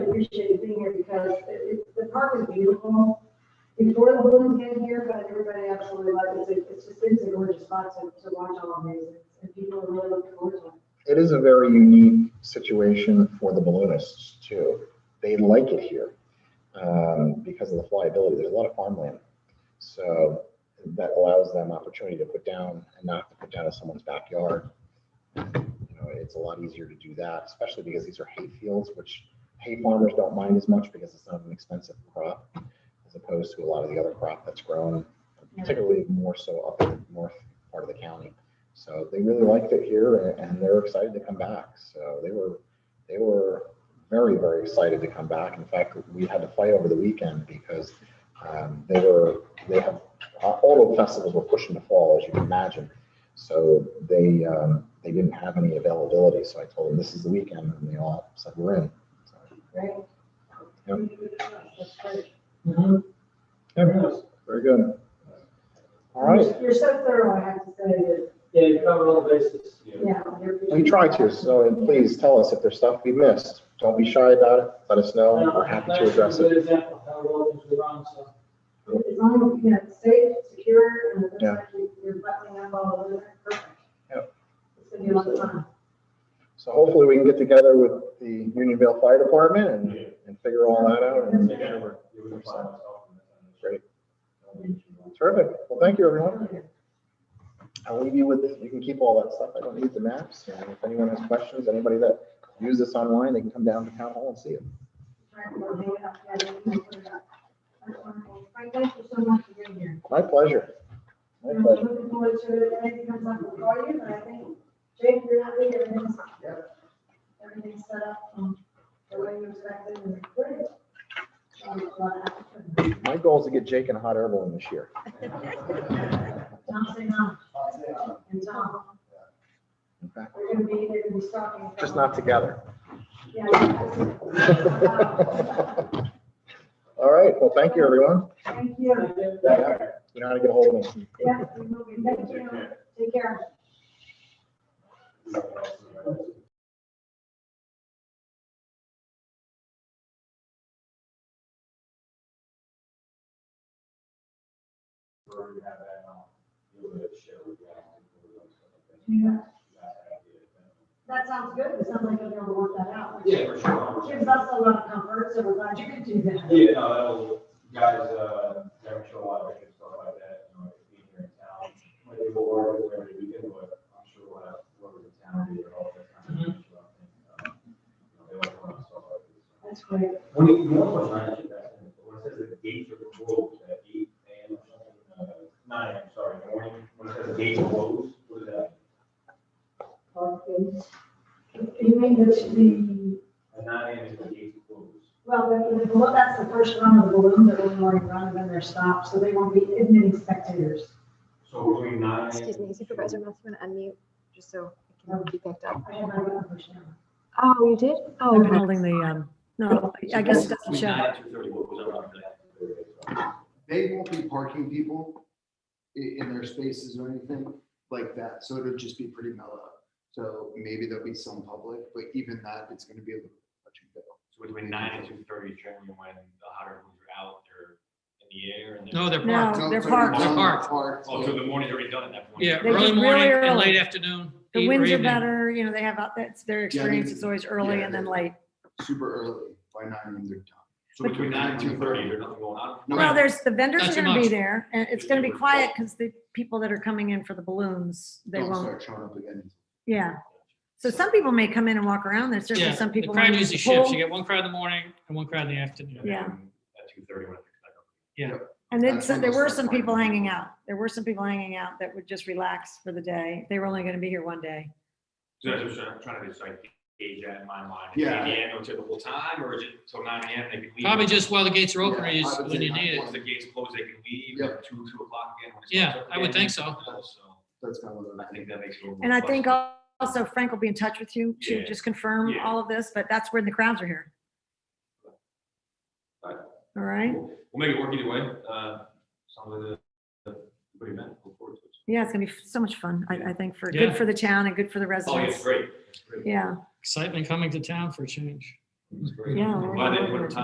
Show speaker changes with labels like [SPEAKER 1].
[SPEAKER 1] appreciate being here because it- it- the park is beautiful. Before the balloons get here, but everybody absolutely loves it. It's just, it's a gorgeous spot to, to watch all of these. And people are really looking forward to it.
[SPEAKER 2] It is a very unique situation for the balloonists too. They like it here um, because of the flyability. There's a lot of farmland. So that allows them opportunity to put down and not to put down in someone's backyard. You know, it's a lot easier to do that, especially because these are hay fields, which hay farmers don't mind as much because it's not an expensive crop as opposed to a lot of the other crop that's grown, particularly more so up in the north part of the county. So they really liked it here and- and they're excited to come back. So they were, they were very, very excited to come back. In fact, we had to fight over the weekend because um, they were, they have, uh, all the festivals were pushing to fall, as you can imagine. So they, um, they didn't have any availability. So I told them, this is the weekend and they all said, we're in. So,
[SPEAKER 1] Right? That's great.
[SPEAKER 2] yeah, Very good. All right.
[SPEAKER 1] You're so thorough, I have to say that,
[SPEAKER 3] Yeah, you covered all the bases.
[SPEAKER 1] yeah. you're-
[SPEAKER 2] We try to, so and please tell us if there's stuff we missed. Don't be shy about it. Let us know. We're happy to address it.
[SPEAKER 3] That's a good example of how well things were run, so.
[SPEAKER 1] As long as, you know, it's safe, secure, and it looks
[SPEAKER 2] Yeah.
[SPEAKER 1] like you- you're buttoning up all of it, perfect.
[SPEAKER 2] Yep.
[SPEAKER 1] It's gonna be a lot of fun.
[SPEAKER 2] So hopefully we can get together with the Unionville Fire Department and, and figure all that out. and- Great. Terrific. Well, thank you, everyone. I'll leave you with, you can keep all that stuff. I don't need the maps. And if anyone has questions, anybody that views this online, they can come down to town hall and see it.
[SPEAKER 1] Right, we'll hang it up, yeah, we'll hang it up. That's wonderful. Frank, thank you so much for being here.
[SPEAKER 2] My pleasure. My
[SPEAKER 1] I'm
[SPEAKER 2] pleasure.
[SPEAKER 1] looking forward to it, and if it comes up, we'll call you, but I think, Jake, you're happy, everything's, everything's set up, um, the way you expected, and it's great. Um, a lot of applicants.
[SPEAKER 2] My goal is to get Jake and Hot Air Balloon this year.
[SPEAKER 1] Tom, say no, and Tom,
[SPEAKER 2] In fact,
[SPEAKER 1] we're gonna be, they're gonna be stalking. Tom.
[SPEAKER 2] Just not together.
[SPEAKER 1] Yeah, absolutely.
[SPEAKER 2] All right. Well, thank you, everyone.
[SPEAKER 1] Thank you.
[SPEAKER 2] You know how to get a hold of me.
[SPEAKER 1] Yeah, we will be. Thank you. Take care. Yeah, That sounds good. It sounds like you're gonna work that out. which
[SPEAKER 4] Yeah, for sure.
[SPEAKER 1] Gives us a lot of comfort, so we're glad you could do that.
[SPEAKER 4] Yeah, no, that'll, guys, uh, never show a lot of interest, stuff like that, you know, being here in town. When they go over, it's every weekend, but I'm sure we'll have, whoever's in town, be there all the time. and, uh, you know, They like to run stuff like this.
[SPEAKER 1] That's great.
[SPEAKER 4] When you, you know, when I should ask him, but when it says the gates are closed at eight AM or something, uh, nine, I'm sorry, in the morning, when it says the gates are closed, what is that?
[SPEAKER 1] You mean that the,
[SPEAKER 4] At nine AM is the gates are closed.
[SPEAKER 1] well, the, the- well, that's the first run of the balloon, the balloon already run, and then they're stopped, so they won't be admitting spectators.
[SPEAKER 4] So between nine.
[SPEAKER 5] Excuse me, Supervisor Matthew, want to unmute, just so it can be picked up.
[SPEAKER 1] I have my own question.
[SPEAKER 5] Oh, you did? Oh,
[SPEAKER 6] I'm
[SPEAKER 5] okay.
[SPEAKER 6] holding the, um, no, I guess it doesn't
[SPEAKER 4] Between
[SPEAKER 6] show.
[SPEAKER 4] nine and two thirty, what was that? around that?
[SPEAKER 7] they won't be parking people i- in their spaces or anything like that, so it'll just be pretty mellow. So maybe there'll be some public, but even that, it's gonna be a little touch and go.
[SPEAKER 4] So between nine and two thirty, generally when the hotter ones are out, they're in the air and.
[SPEAKER 8] No, they're
[SPEAKER 6] No.
[SPEAKER 8] parked.
[SPEAKER 7] So-
[SPEAKER 6] Oh, they're
[SPEAKER 7] so
[SPEAKER 6] parked.
[SPEAKER 7] some
[SPEAKER 8] They're parked.
[SPEAKER 7] parked,
[SPEAKER 4] Oh, so the morning's already done at that point.
[SPEAKER 8] Yeah,
[SPEAKER 6] They
[SPEAKER 8] early
[SPEAKER 6] get really
[SPEAKER 8] morning and
[SPEAKER 6] early.
[SPEAKER 8] late afternoon.
[SPEAKER 6] The
[SPEAKER 8] eve or
[SPEAKER 6] winds are
[SPEAKER 8] evening.
[SPEAKER 6] better, you know, they have, out that's their experience, it's always early and then late.
[SPEAKER 7] Super early, by nine, they're done.
[SPEAKER 4] So between nine and two thirty, there's nothing going on.
[SPEAKER 7] No,
[SPEAKER 6] Well, there's, the vendors
[SPEAKER 8] Not
[SPEAKER 6] are
[SPEAKER 8] too
[SPEAKER 6] gonna be
[SPEAKER 8] much.
[SPEAKER 6] there, and it's gonna be quiet because the people that are coming in for the balloons, they
[SPEAKER 8] Oh,
[SPEAKER 7] Don't
[SPEAKER 6] won't,
[SPEAKER 7] Start showing up again.
[SPEAKER 6] yeah. So some people may come in and walk around, there's certainly
[SPEAKER 8] Yeah,
[SPEAKER 6] some
[SPEAKER 8] the
[SPEAKER 6] people.
[SPEAKER 8] crowd
[SPEAKER 6] lining
[SPEAKER 8] usually
[SPEAKER 6] the
[SPEAKER 8] shifts.
[SPEAKER 6] pool,
[SPEAKER 8] You get one crowd in the morning and one crowd in the afternoon.
[SPEAKER 4] And
[SPEAKER 6] Yeah.
[SPEAKER 4] then At two thirty, when it picks back up.
[SPEAKER 6] And then,
[SPEAKER 7] That's
[SPEAKER 6] so
[SPEAKER 7] when
[SPEAKER 6] there
[SPEAKER 7] they'll
[SPEAKER 6] were
[SPEAKER 7] start
[SPEAKER 6] some people
[SPEAKER 7] partying.
[SPEAKER 6] hanging out, there were some people hanging out that would just relax for the day, they were only gonna be here one day.
[SPEAKER 4] So that's what I'm trying to just like gauge that in my mind.
[SPEAKER 7] Yeah.
[SPEAKER 4] Is it 8 AM until the whole time, or is it till nine AM they can leave?
[SPEAKER 8] Probably just while the gates are open,
[SPEAKER 7] Yeah,
[SPEAKER 8] or
[SPEAKER 7] I
[SPEAKER 8] you just
[SPEAKER 7] would
[SPEAKER 8] when
[SPEAKER 7] say
[SPEAKER 8] you need it.
[SPEAKER 7] not.
[SPEAKER 4] Once the gates close, they can leave,
[SPEAKER 7] Yeah.
[SPEAKER 4] at two, two o'clock again. when it
[SPEAKER 8] Yeah,
[SPEAKER 4] starts up
[SPEAKER 8] I would
[SPEAKER 4] again.
[SPEAKER 8] think so.
[SPEAKER 7] That's kind of.
[SPEAKER 4] I think that makes it a little.
[SPEAKER 6] And I think
[SPEAKER 4] flexible.
[SPEAKER 6] al- also Frank will be in touch with you to
[SPEAKER 4] Yeah.
[SPEAKER 6] just confirm
[SPEAKER 4] Yeah.
[SPEAKER 6] all of this, but that's when the crowds are here.
[SPEAKER 4] Right.
[SPEAKER 6] All right,
[SPEAKER 4] Cool. We'll make it work either way. Uh, some of the, the, what do you meant, look forward to it.
[SPEAKER 6] yeah, it's gonna be so much fun, I, I think, for,
[SPEAKER 8] Yeah.
[SPEAKER 6] good for the town and good for the
[SPEAKER 4] Oh, yeah, it's
[SPEAKER 6] residents.
[SPEAKER 4] great. It's great.
[SPEAKER 6] Yeah,
[SPEAKER 8] Excitement coming to town for a change.
[SPEAKER 6] It's great.
[SPEAKER 4] Yeah,
[SPEAKER 6] I'm Glad they put
[SPEAKER 4] we're-
[SPEAKER 6] time